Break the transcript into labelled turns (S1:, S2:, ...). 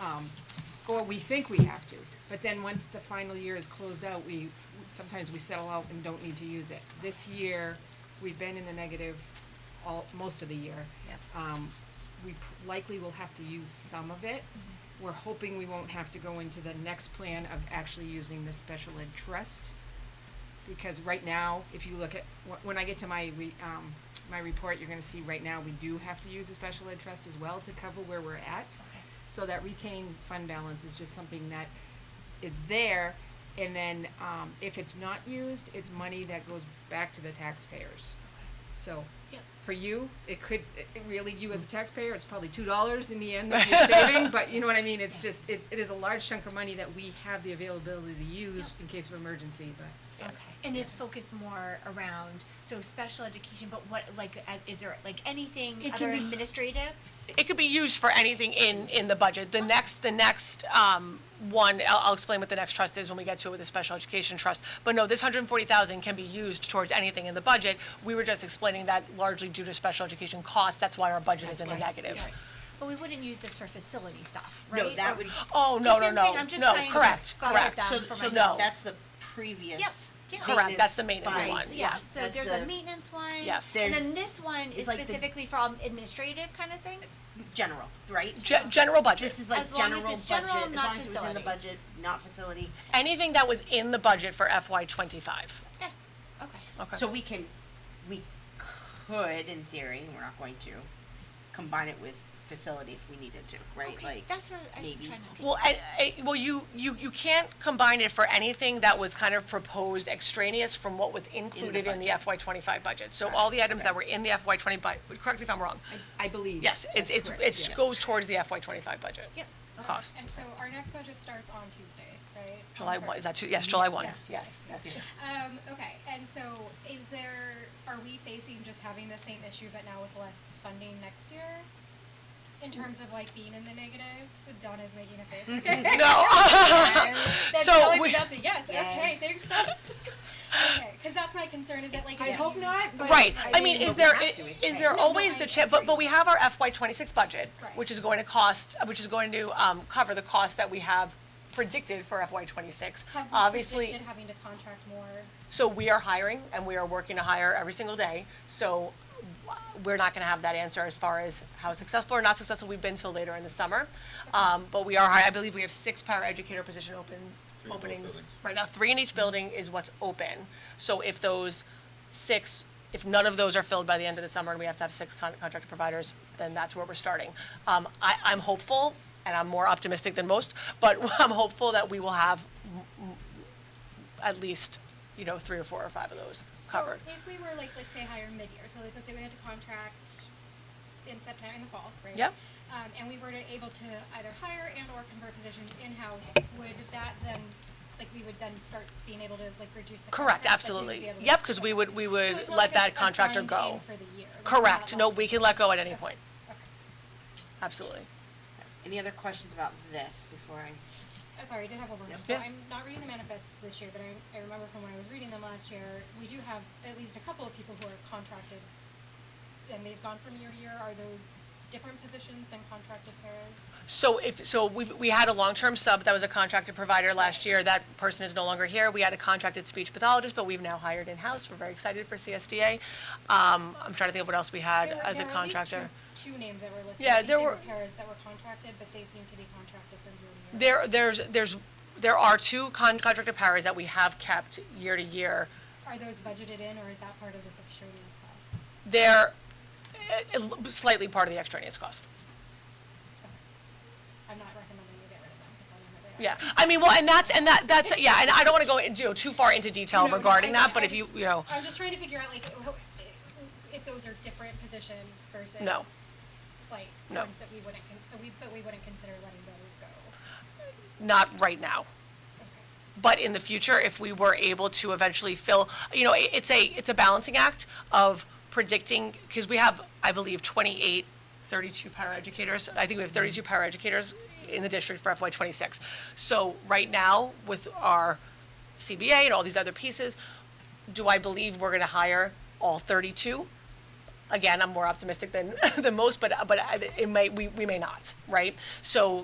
S1: um, or we think we have to. But then once the final year is closed out, we, sometimes we settle out and don't need to use it. This year, we've been in the negative all, most of the year.
S2: Yep.
S1: Um, we p- likely will have to use some of it. We're hoping we won't have to go into the next plan of actually using the special ed trust. Because right now, if you look at, wh- when I get to my re, um, my report, you're gonna see right now, we do have to use a special ed trust as well to cover where we're at. So that retained fund balance is just something that is there, and then, um, if it's not used, it's money that goes back to the taxpayers. So,
S2: Yep.
S1: for you, it could, it it really, you as a taxpayer, it's probably two dollars in the end that you're saving, but you know what I mean, it's just, it, it is a large chunk of money that we have the availability to use in case of emergency, but.
S2: Okay, and it's focused more around, so special education, but what, like, as, is there, like, anything
S1: It can
S2: other
S1: be-
S2: administrative?
S3: It could be used for anything in, in the budget. The next, the next, um, one, I'll, I'll explain what the next trust is when we get to it with the special education trust. But no, this hundred and forty thousand can be used towards anything in the budget. We were just explaining that largely due to special education costs, that's why our budget is in the negative.
S2: Right. But we wouldn't use this for facility stuff, right?
S4: No, that
S2: Or-
S4: would,
S2: Do
S3: Oh,
S2: you see
S3: no, no,
S2: what I'm saying?
S3: no,
S2: I'm just
S3: no,
S2: trying to
S3: correct,
S2: go with
S3: correct.
S2: that.
S4: so,
S2: for
S4: so
S3: myself.
S4: that's the previous.
S2: Yep, yeah.
S3: Correct, that's the maintenance
S4: fund.
S2: Right,
S3: one,
S2: yeah,
S3: yeah.
S2: so
S4: That's
S2: there's
S4: the
S2: a maintenance one.
S3: Yes.
S2: And then
S4: There's-
S2: this one is
S4: it's like the- Mm.
S2: specifically for all administrative kind of things?
S4: General, right?
S3: Ge- general budget.
S4: This is like
S2: As long as
S4: general budget,
S2: it's
S4: as
S2: general, not
S4: long as it was in the
S2: facility.
S4: budget, not facility.
S3: anything that was in the budget for FY twenty-five.
S2: Yeah, okay.
S3: Okay.
S4: So we can, we could, in theory, and we're not going to, combine it with facility if we needed to, right?
S2: Okay,
S4: Like,
S2: That's where I was just
S4: maybe-
S2: trying to understand.
S3: Well, I, I, well, you, you, you can't combine it for anything that was kind of proposed extraneous from what was included in the
S4: budget.
S3: FY twenty-five budget. So
S4: Got
S3: all
S4: it,
S3: the items that
S4: okay.
S3: were in the FY twenty, bu- correct me if I'm wrong.
S1: I, I believe.
S3: Yes, it's,
S1: that's
S3: it's,
S1: correct,
S3: it
S1: yes.
S3: goes towards the FY twenty-five budget.
S2: Yep. Okay.
S3: Cost.
S5: And so our next budget starts on Tuesday, right? On
S3: July
S5: the
S3: one, is that,
S5: first.
S3: two- yes, July
S5: Yes,
S3: one,
S5: next
S3: yes,
S5: Tuesday.
S3: yes.
S5: Um, okay, and so is there, are we facing just having the same issue but now with less funding next year? In terms of like being in the negative, Donna's making a face, okay?
S3: No.
S5: That's
S3: So,
S5: telling me
S3: we-
S5: that's a yes, okay,
S4: Yes.
S5: thanks, Donna. Okay, cause that's my concern, is that like.
S1: I hope not, but.
S3: right, I mean, is
S4: but we
S3: there,
S4: have
S3: i-
S4: to, it's
S3: is
S4: right.
S3: there
S5: No, no,
S3: always
S5: I-
S3: the
S5: I
S3: chip, but, but we have our FY twenty-six budget,
S5: Right.
S3: which is going to cost, which is going to, um, cover the cost that we have predicted for FY twenty-six.
S5: Have we
S3: Obviously.
S5: predicted having to contract more?
S3: So we are hiring and we are working to hire every single day. So we're not gonna have that answer as far as how successful or not successful we've been till later in the summer. Um, but we are, hi- I believe we have six paraeducator position open,
S6: Three in both
S3: openings.
S6: buildings.
S3: Right now, three in each building is what's open. So if those six, if none of those are filled by the end of the summer and we have to have six con- contracted providers, then that's where we're starting. Um, I, I'm hopeful and I'm more optimistic than most, but I'm hopeful that we will have at least, you know, three or four or five of those covered.
S5: So if we were like, let's say hire mid-year, so like, let's say we had to contract in September, in the fall, right?
S3: Yep.
S5: Um, and we were to able to either hire and or convert positions in-house, would that then, like, we would then start being able to like reduce the
S3: Correct,
S5: contract? like, we'd be
S3: absolutely.
S5: able to-
S3: Yep, because we would, we
S5: So
S3: would
S5: it's
S3: let
S5: not like a-
S3: that
S5: a
S3: contractor
S5: bind in
S3: go.
S5: for the year, like, it's not
S3: Correct, no,
S5: locked.
S3: we can let go at any point,
S5: Okay.
S3: absolutely.
S4: Any other questions about this before I?
S5: Uh, sorry, I did have one more.
S4: Yep.
S5: So
S3: Yeah.
S5: I'm not reading the manifests this year, but I, I remember from when I was reading them last year, we do have at least a couple of people who are contracted, and they've gone from year to year. Are those different positions than contracted paras?
S3: So if, so we, we had a long-term sub that was a contracted provider last year, that person is no longer here. We had a contracted speech pathologist, but we've now hired in-house, we're very excited for CSDA. Um, I'm trying to think of what else we had
S5: There were-
S3: as a
S5: there were at least
S3: contractor.
S5: two, two names that were listed.
S3: Yeah,
S5: I think
S3: there
S5: they
S3: were-
S5: paras that were contracted, but they seem to be contracted from year to year.
S3: There, there's, there's, there are two con- contracted powers that we have kept year to year.
S5: Are those budgeted in, or is that part of this extraneous cost?
S3: They're eh, eh, slightly part of the extraneous cost.
S5: I'm not recommending you get rid of them because I don't know where they are.
S3: Yeah, I mean, well, and that's, and that, that's, yeah, and I don't wanna go into, you know, too far into detail
S5: No, no,
S3: regarding
S5: I-
S3: that,
S5: I
S3: but if you,
S5: just-
S3: you know,
S5: I'm just trying to figure out like wh- if those are different positions versus
S3: No.
S5: like
S3: No.
S5: ones that we wouldn't con- so we but we wouldn't consider letting those go.
S3: not right now.
S5: Okay.
S3: But in the future, if we were able to eventually fill, you know, i- it's a, it's a balancing act of predicting, cause we have, I believe, 28, 32 paraeducators. I think we have thirty-two paraeducators in the district for FY twenty-six. So right now, with our CBA and all these other pieces, do I believe we're gonna hire all thirty-two? again, I'm more optimistic than than most, but but I- it may we we may not, right? So